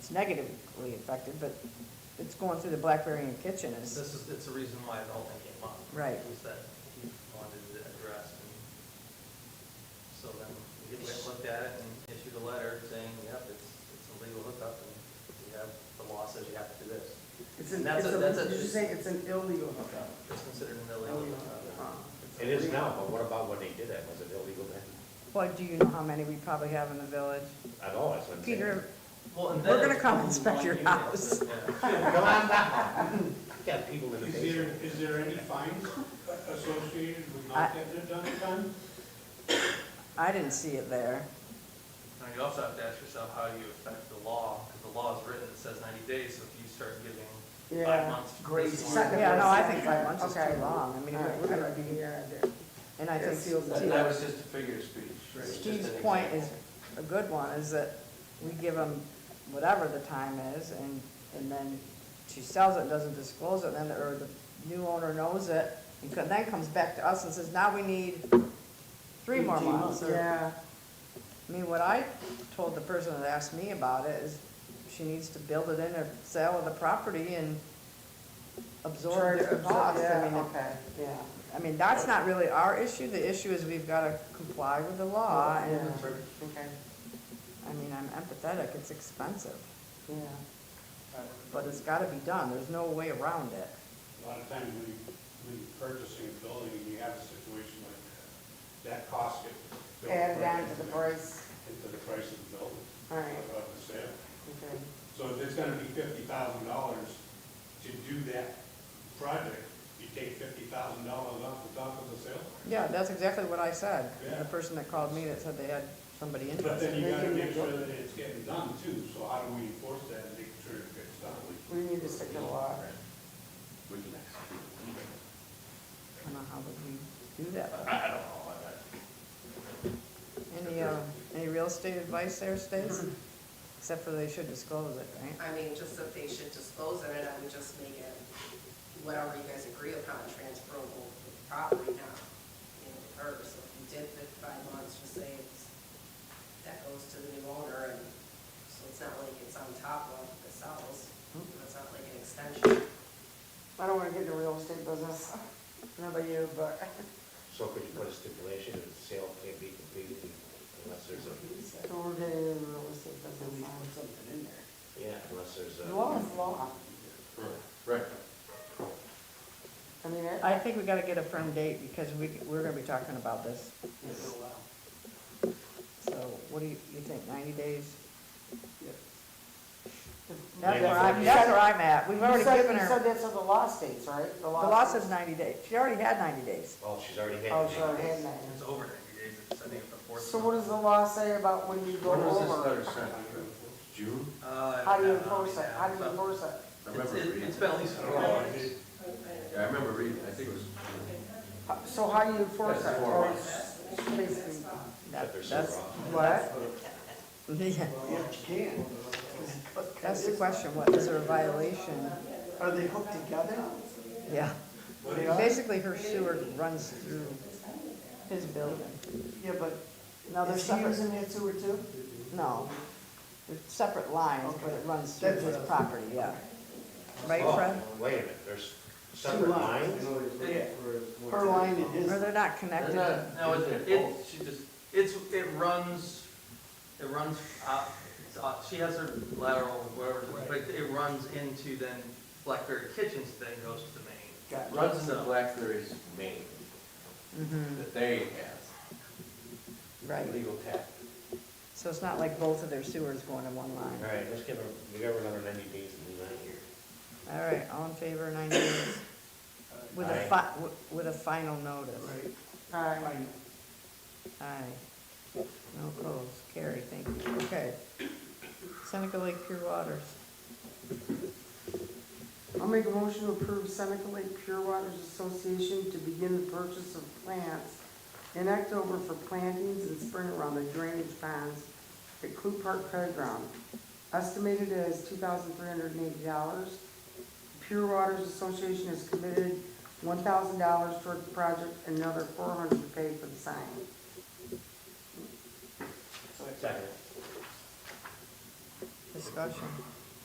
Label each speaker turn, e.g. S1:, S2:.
S1: negatively affected, but it's going through the Blackberry and Kitchen
S2: This
S1: is,
S2: is, it's the reason why it all came up.
S1: Right.
S2: Was that he wanted it addressed, and so then we went, looked at it and issued a letter saying, yep, it's, it's a legal hookup, and you have, the law says you have to do this.
S3: It's an,
S2: And that's
S3: it's
S2: a- that's a-
S3: a, did you say it's an illegal hookup?
S2: It's considered an illegal
S3: Illegal
S2: hookup.
S3: hookup.
S4: It is now, but what about when they did that? Was it illegal then?
S1: well, do you know how many we probably have in the village?
S4: At all, that's what I'm saying.
S1: Peter,
S2: Well, and
S1: We're
S2: then
S1: gonna
S2: it's
S1: come
S2: only
S1: inspect
S2: one
S1: your
S2: unit.
S1: house.
S2: Yeah.
S4: Come on down. Got people in the
S5: Is there,
S4: basement.
S5: is there any fines associated with
S1: I-
S5: not getting it done in time?
S1: I didn't see it there.
S2: Now, you also have to ask yourself how you affect the law, because the law is written, it says ninety days, so if you start giving
S3: Yeah.
S2: five months.
S3: Grace.
S2: this
S3: Second.
S2: one-
S1: Yeah, no, I think five months is
S3: Okay.
S1: too long, I mean,
S3: All right,
S1: we're gonna
S3: yeah,
S1: be,
S3: yeah, yeah.
S1: and I think
S3: Yes.
S6: That that
S1: Steve's-
S6: was just a figure of speech. It was just
S1: Steve's
S6: an
S1: point is,
S6: example.
S1: a good one, is that we give them whatever the time is, and, and then she sells it, doesn't disclose it, then, the- or the new owner knows it, and co- then comes back to us and says, now we need three more
S6: 18
S1: months, or-
S3: Yeah,
S1: I mean, what I told the person that asked me about it is she needs to build it in a sale of the property and absorb
S3: charge
S1: the
S3: of,
S1: cost. I
S3: yeah,
S1: mean,
S3: okay, yeah.
S1: I mean, that's not really our issue. The issue is we've got to comply with the law
S3: Yeah,
S1: Oh, and,
S3: Okay,
S1: I mean, I'm empathetic, it's expensive,
S3: yeah.
S1: but it's got to be done. There's no way around it.
S5: A lot of times when you, when you're purchasing a building and you have a situation like that, that cost it. built
S3: Add
S5: right
S3: on to the
S5: into
S3: price,
S5: Into the price of the building,
S3: all right,
S5: of of the sale.
S3: okay.
S5: So if it's gonna be fifty thousand dollars to do that project, you take fifty thousand dollars off the top of the sale?
S1: Yeah, that's exactly what I said.
S5: Yeah.
S1: The person that called me that said they had somebody
S5: But
S1: interested.
S5: then you
S3: They
S5: gotta
S3: can
S5: make
S3: make
S5: sure
S3: it-
S5: that it's getting done too, so how do we enforce that and make sure it gets done?
S3: We need to stick to the law.
S4: We can execute.
S1: I don't know how would we do that.
S4: I I don't know. I- I-
S1: Any, uh, any real estate advice there, Stace? Except for they should disclose it, right?
S7: I mean, just that they should dispose of it, I would just make it whatever you guys agree upon transferable to the property now, you know, to her. So if you did fifty-five months, just say it's, that goes to the new owner, and so it's not like it's on top of the cells. It's not like an extension.
S3: I don't wanna get into real estate business, not about you, but,
S4: So could you put a stipulation that the sale can't be completed unless there's a,
S3: but we're getting into real estate
S6: Then we
S3: business.
S6: put something in there.
S4: yeah, unless there's a.
S3: now. Law is law.
S6: Right.
S3: I mean, it,
S1: I think we gotta get a firm date because we, we're gonna be talking about this. So what do you, you think, ninety days? That's where I'm, that's where I'm at. We've
S3: you
S1: already
S3: said,
S1: given
S3: you said
S1: her,
S3: that's what the law states, right? The
S1: the law
S3: states-
S1: says ninety days. She already had ninety days.
S4: Oh, she's already had.
S3: Oh,
S4: it.
S3: sure, had that.
S2: It's over ninety days, it's, I think, the fourth.
S3: So what does the law say about when you go
S6: When was this
S3: over?
S6: letter sent? June?
S2: Uh,
S3: How do you
S2: I don't know, I
S3: enforce
S2: mean,
S3: it? How do you
S2: but
S3: enforce it?
S6: I
S2: It's,
S6: remember
S2: it-
S6: reading.
S2: it's been at least
S5: Oh, I
S2: four
S5: don't know,
S2: months.
S5: it-
S6: Yeah, I remember reading, I think it was.
S3: How- So how do you enforce
S6: That's
S3: it?
S6: four
S3: Or
S6: months.
S3: it's Basically,
S4: But
S1: That-
S4: they're so
S1: That's,
S4: wrong.
S3: what?
S1: yeah,
S6: Yeah, you can.
S1: that's the question. What, is there a violation?
S6: Are they hooked together?
S1: Yeah.
S6: They are?
S1: Basically, her sewer runs through his building.
S6: Yeah, but
S1: No, they're
S6: is he
S1: separate,
S6: using that sewer too?
S1: no. They're separate lines, but it runs through
S6: That's
S1: his
S6: what I-
S1: property, yeah. Right,
S4: Oh,
S1: Fred?
S4: Wait a minute, there's separate lines?
S6: Yeah. Her line and his.
S1: Or they're not connected?
S2: No,
S6: Isn't
S2: it,
S6: it
S2: it,
S6: both?
S2: she just, it's, it runs, it runs up, it's up- she has her lateral, whatever, but it runs into then Blackberry Kitchens, then goes to the main.
S6: Got- Runs into Blackberry's main
S1: Mm-hmm,
S6: that they have,
S1: right.
S6: legal tap.
S1: So it's not like both of their sewers going in one
S4: All
S1: line.
S4: right, let's give her, we give her another ninety days and leave that here.
S1: All right, all in favor, ninety days? With a fi, wi- with a final notice.
S3: All right,
S1: Aye. No opposed, carry, thank you, okay. Seneca Lake Pure Waters,
S3: I'll make a motion to approve Seneca Lake Pure Waters Association to begin the purchase of plants in October for plantings in spring around the drainage ponds at Clue Park Playground. Estimated as two thousand three hundred and eighty dollars. Pure Waters Association has committed one thousand dollars toward the project, and another four hundred dollars to pay for the sign.
S4: Second.
S1: discussion.